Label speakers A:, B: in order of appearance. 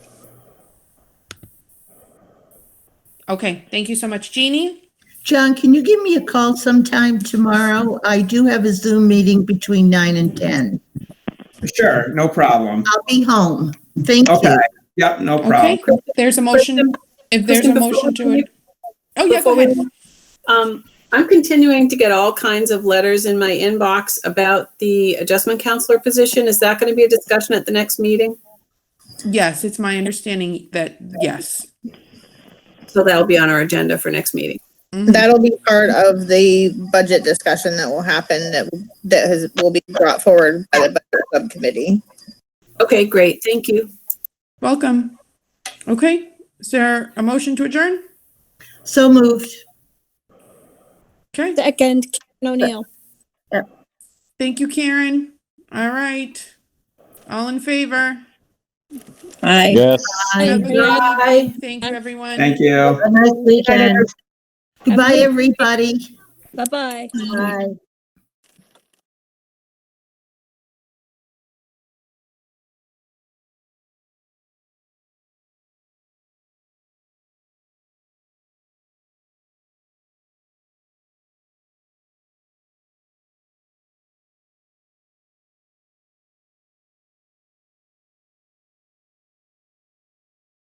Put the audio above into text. A: Okay, thank you so much. Jeannie?
B: John, can you give me a call sometime tomorrow? I do have a Zoom meeting between nine and ten.
C: Sure, no problem.
B: I'll be home. Thank
C: Okay,
B: you.
C: yep, no problem.
A: Okay, there's a motion, if there's a
D: Kristen, before
A: motion to
D: we-
A: it. Oh, yeah, go
D: before we-
A: ahead.
D: Um, I'm continuing to get all kinds of letters in my inbox about the adjustment counselor position. Is that going to be a discussion at the next meeting?
A: Yes, it's my understanding that, yes.
D: So that'll be on our agenda for next meeting.
A: Mhm.
E: That'll be part of the budget discussion that will happen that, that has, will be brought forward by the budget subcommittee.
D: Okay, great. Thank you.
A: Welcome. Okay, is there a motion to adjourn?
B: So moved.
A: Okay,
F: Second, Karen O'Neill.
A: thank you, Karen. All right. All in favor?
F: Aye.
G: Yes.
A: Have a
B: Bye.
A: good evening. Thank you, everyone.
C: Thank you.
B: Have a nice weekend. Goodbye, everybody.
F: Bye-bye.
B: Bye.